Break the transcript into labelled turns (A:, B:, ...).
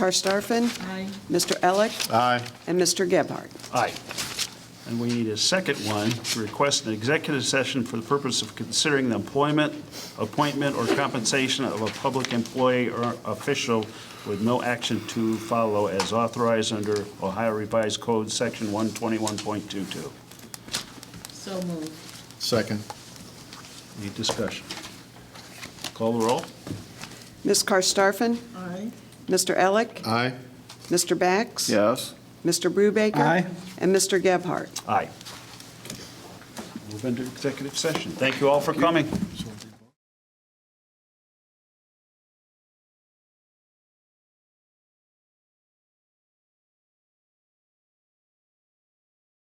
A: Karstafen,
B: Aye.
A: Mr. Elick,
C: Aye.
A: and Mr. Gebhardt.
D: Aye. And we need a second one to request an executive session for the purpose of considering the employment, appointment, or compensation of a public employee or official with no action to follow as authorized under Ohio Revised Code, Section 121.22.
B: So moved.
C: Second.
D: Any discussion? Call the roll.
A: Ms. Karstafen,
B: Aye.
A: Mr. Elick,
C: Aye.
A: Mr. Bax.
C: Yes.
A: Mr. Brubaker.
C: Aye.
A: And Mr. Gebhardt.
D: Aye. Move into executive session. Thank you all for coming.